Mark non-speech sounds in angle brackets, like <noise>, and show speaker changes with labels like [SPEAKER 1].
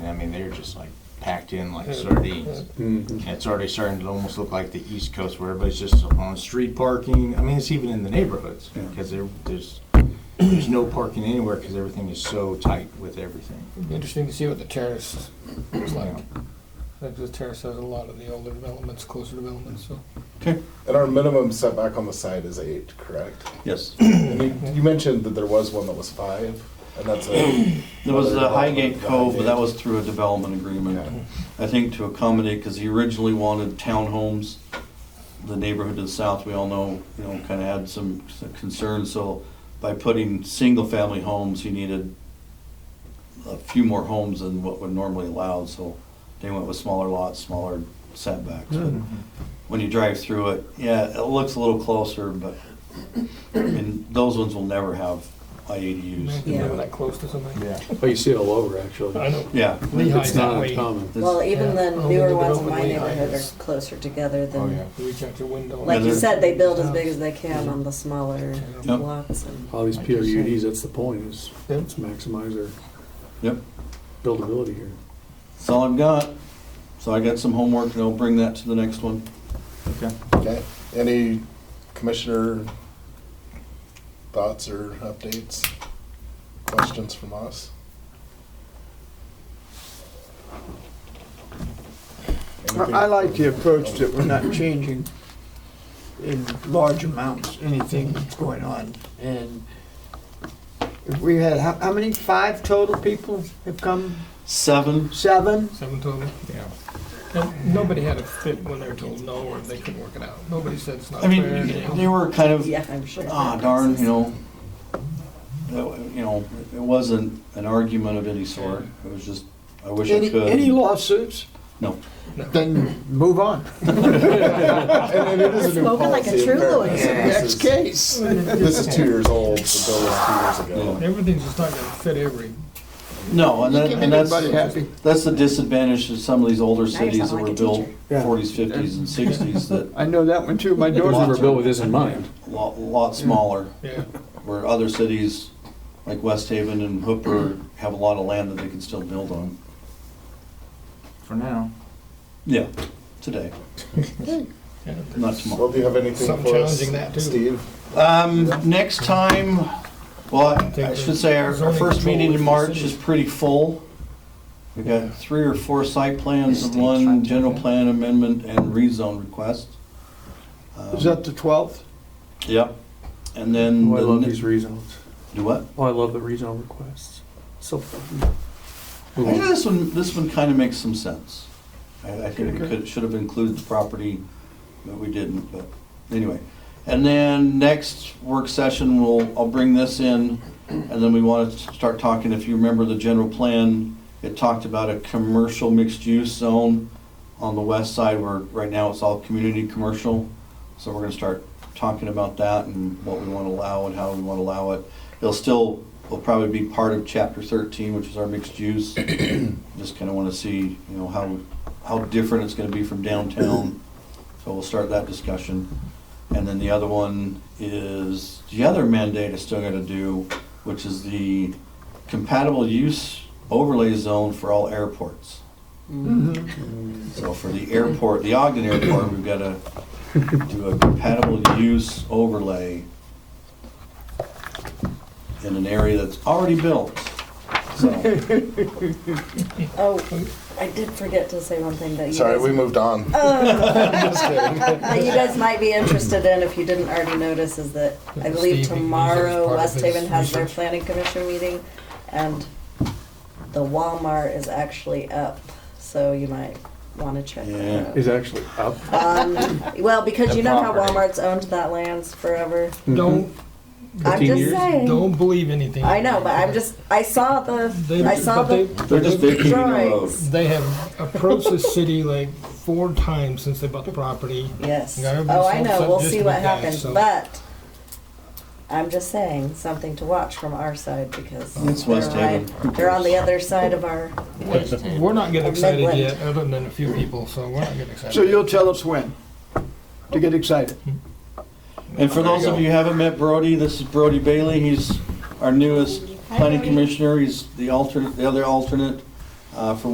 [SPEAKER 1] mean, they're just like packed in like sardines.
[SPEAKER 2] Mhm.
[SPEAKER 1] And It's already starting to almost look like the East Coast where everybody's just on street parking. I mean, it's even in the neighborhoods
[SPEAKER 2] Yeah.
[SPEAKER 1] because there, there's, there's no parking anywhere because everything is so tight with everything.
[SPEAKER 3] It'd be Interesting to see what the terrace is like.
[SPEAKER 1] Yeah.
[SPEAKER 3] Like the terrace has a lot of the older developments, closer developments, so.
[SPEAKER 4] And our minimum setback on the side is eight, correct?
[SPEAKER 5] Yes.
[SPEAKER 4] And you, you mentioned that there was one that was five, and that's a.
[SPEAKER 5] There was the
[SPEAKER 4] another
[SPEAKER 5] Highgate
[SPEAKER 4] development,
[SPEAKER 5] Cove, but that
[SPEAKER 4] Highgate.
[SPEAKER 5] was through a development agreement.
[SPEAKER 4] Okay.
[SPEAKER 5] I think to accommodate, because he originally wanted townhomes. The neighborhood to the south, we all know, you know, kind of had some concerns, so by putting single-family homes, he needed a few more homes than what would normally allow, so they went with smaller lots, smaller setbacks. But When you drive through it, yeah, it looks a little closer, but, and those ones will never have IADUs.
[SPEAKER 3] Imagine living that close to something.
[SPEAKER 1] Yeah.
[SPEAKER 2] Oh, you see it all over, actually.
[SPEAKER 3] I know.
[SPEAKER 5] Yeah.
[SPEAKER 3] Lehigh's
[SPEAKER 2] It's
[SPEAKER 3] that
[SPEAKER 2] not
[SPEAKER 3] way.
[SPEAKER 2] uncommon.
[SPEAKER 6] Well,
[SPEAKER 3] Yeah.
[SPEAKER 6] even the
[SPEAKER 3] Oh,
[SPEAKER 6] newer
[SPEAKER 3] the
[SPEAKER 6] ones in my
[SPEAKER 3] development way
[SPEAKER 6] neighborhood
[SPEAKER 3] high is-
[SPEAKER 6] are closer together
[SPEAKER 1] Oh, yeah.
[SPEAKER 6] than,
[SPEAKER 3] Reach out your window.
[SPEAKER 6] like you
[SPEAKER 5] Yeah,
[SPEAKER 6] said, they build as big as they can on the smaller
[SPEAKER 5] Yep.
[SPEAKER 6] lots. and-
[SPEAKER 2] All these
[SPEAKER 3] Like you said.
[SPEAKER 2] PRUDs, that's the point, is let's maximize our
[SPEAKER 5] Yep.
[SPEAKER 2] buildability here.
[SPEAKER 5] That's all I've got. So I got some homework and I'll bring that to the next one.
[SPEAKER 1] Okay.
[SPEAKER 4] Okay, any commissioner thoughts or updates, questions from us?
[SPEAKER 7] I I like the approach that we're not changing in large amounts, anything that's going on. And if we had, how, how many, five total people have come?
[SPEAKER 5] Seven,
[SPEAKER 7] Seven?
[SPEAKER 3] Seven total.
[SPEAKER 1] Yeah.
[SPEAKER 3] And nobody had a fit when they were told no or they couldn't work it out. Nobody said it's not
[SPEAKER 5] I
[SPEAKER 3] fair.
[SPEAKER 5] mean, they were kind of,
[SPEAKER 6] Yeah, I'm sure.
[SPEAKER 5] ah, darn, you know. that wa- You know, it wasn't an argument of any sort. It was just, I wish I
[SPEAKER 7] Any, any
[SPEAKER 5] could.
[SPEAKER 7] lawsuits?
[SPEAKER 5] No.
[SPEAKER 7] Then move on.
[SPEAKER 4] And it is a new
[SPEAKER 6] Spoken like a
[SPEAKER 4] policy,
[SPEAKER 6] true
[SPEAKER 4] apparently,
[SPEAKER 6] lawyer.
[SPEAKER 4] so
[SPEAKER 7] Next
[SPEAKER 4] this is-
[SPEAKER 7] case.
[SPEAKER 4] This is two years old, the bill was two years ago.
[SPEAKER 3] Everything's just not gonna fit every,
[SPEAKER 5] No, and that,
[SPEAKER 7] Keep
[SPEAKER 5] and that's,
[SPEAKER 7] everybody happy.
[SPEAKER 5] that's the disadvantage of some of these older
[SPEAKER 6] Now you
[SPEAKER 5] cities that
[SPEAKER 6] sound
[SPEAKER 5] were
[SPEAKER 6] like a
[SPEAKER 5] built
[SPEAKER 6] teacher.
[SPEAKER 2] Yeah.
[SPEAKER 5] forties, fifties and sixties that
[SPEAKER 7] I know that one
[SPEAKER 5] <laughs>
[SPEAKER 7] too. My
[SPEAKER 2] Doors
[SPEAKER 7] daughter
[SPEAKER 2] were built with this in mind.
[SPEAKER 5] lot, lot smaller.
[SPEAKER 3] yeah.
[SPEAKER 5] Where other cities like West Haven and Hooper have a lot of land that they can still build on.
[SPEAKER 1] For now.
[SPEAKER 5] Yeah, today,
[SPEAKER 3] yeah.
[SPEAKER 5] not tomorrow.
[SPEAKER 4] Well, do you have anything
[SPEAKER 3] Something
[SPEAKER 4] for us,
[SPEAKER 3] challenging that, too.
[SPEAKER 4] Steve?
[SPEAKER 5] Um, next time, well, I I should say our our
[SPEAKER 3] Zoning
[SPEAKER 5] first
[SPEAKER 3] control
[SPEAKER 5] meeting
[SPEAKER 3] is
[SPEAKER 5] in
[SPEAKER 3] the
[SPEAKER 5] March
[SPEAKER 3] city.
[SPEAKER 5] is pretty full. We've got three or four site plans and one general plan amendment and rezone request. Um,
[SPEAKER 7] Is that the twelfth?
[SPEAKER 5] Yep, and then.
[SPEAKER 2] Oh, I
[SPEAKER 5] the
[SPEAKER 2] love
[SPEAKER 5] ne-
[SPEAKER 2] these rezones.
[SPEAKER 5] Do what?
[SPEAKER 2] Oh, I love the rezone requests. So. fun. Move
[SPEAKER 5] Yeah,
[SPEAKER 2] on.
[SPEAKER 5] this one, this one kind of makes some sense. I, I think it could, should have included the property, but we didn't, but anyway. And then next work session, we'll, I'll bring this in, and then we want to start talking, if you remember the general plan, it talked about a commercial mixed-use zone on the west side where right now it's all community commercial. So we're gonna start talking about that and what we want to allow and how we want to allow it. It'll still, will probably be part of chapter thirteen, which is our mixed use. Just kinda wanna see, you know, how, how different it's gonna be from downtown. So we'll start that discussion. And then the other one is, the other mandate is still gonna do, which is the compatible use overlay zone for all airports. So for the airport, the Ogden Airport, we've got to do a compatible use overlay in an area that's already built. So,
[SPEAKER 6] Oh, I did forget to say one thing that you
[SPEAKER 4] Sorry,
[SPEAKER 6] guys-
[SPEAKER 4] we moved on.
[SPEAKER 6] that you guys might be interested in, if you didn't already notice, is that I believe
[SPEAKER 3] Steve, he- he's
[SPEAKER 6] tomorrow
[SPEAKER 3] part of
[SPEAKER 6] West
[SPEAKER 3] his
[SPEAKER 6] Haven has their
[SPEAKER 3] research.
[SPEAKER 6] planning commission meeting, and the Walmart is actually up, so you might want to check
[SPEAKER 5] Yeah.
[SPEAKER 6] that out.
[SPEAKER 2] Is actually up.
[SPEAKER 6] Well, because you know how
[SPEAKER 1] property.
[SPEAKER 6] Walmart's owned that land forever.
[SPEAKER 3] Don't,
[SPEAKER 6] I'm
[SPEAKER 2] 15
[SPEAKER 6] just
[SPEAKER 2] years?
[SPEAKER 6] saying.
[SPEAKER 3] don't believe anything.
[SPEAKER 6] I know, but I'm just, I saw
[SPEAKER 3] They-
[SPEAKER 6] the, I saw
[SPEAKER 3] but they-
[SPEAKER 6] the,
[SPEAKER 5] they're just vacating the road.
[SPEAKER 6] Drawings.
[SPEAKER 3] They have approached the city like four times since they bought the property.
[SPEAKER 6] yes.
[SPEAKER 3] Yeah, everybody's
[SPEAKER 6] Oh, I
[SPEAKER 3] so
[SPEAKER 6] know, we'll
[SPEAKER 3] upset
[SPEAKER 6] see
[SPEAKER 3] just
[SPEAKER 6] what
[SPEAKER 3] with that,
[SPEAKER 6] happens,
[SPEAKER 3] so-
[SPEAKER 6] but I'm just saying, something to watch from our side because
[SPEAKER 5] It's
[SPEAKER 6] they're
[SPEAKER 5] West Haven.
[SPEAKER 6] right- They're on the other side of our,
[SPEAKER 3] We're not getting
[SPEAKER 6] Of
[SPEAKER 3] excited
[SPEAKER 6] Midland.
[SPEAKER 3] yet, other than a few people, so we're not getting excited.
[SPEAKER 7] So you'll tell us when to get excited.
[SPEAKER 5] And for those of you who haven't met Brody, this is Brody Bailey. He's our newest planning commissioner. He's the alternate, the other alternate uh, for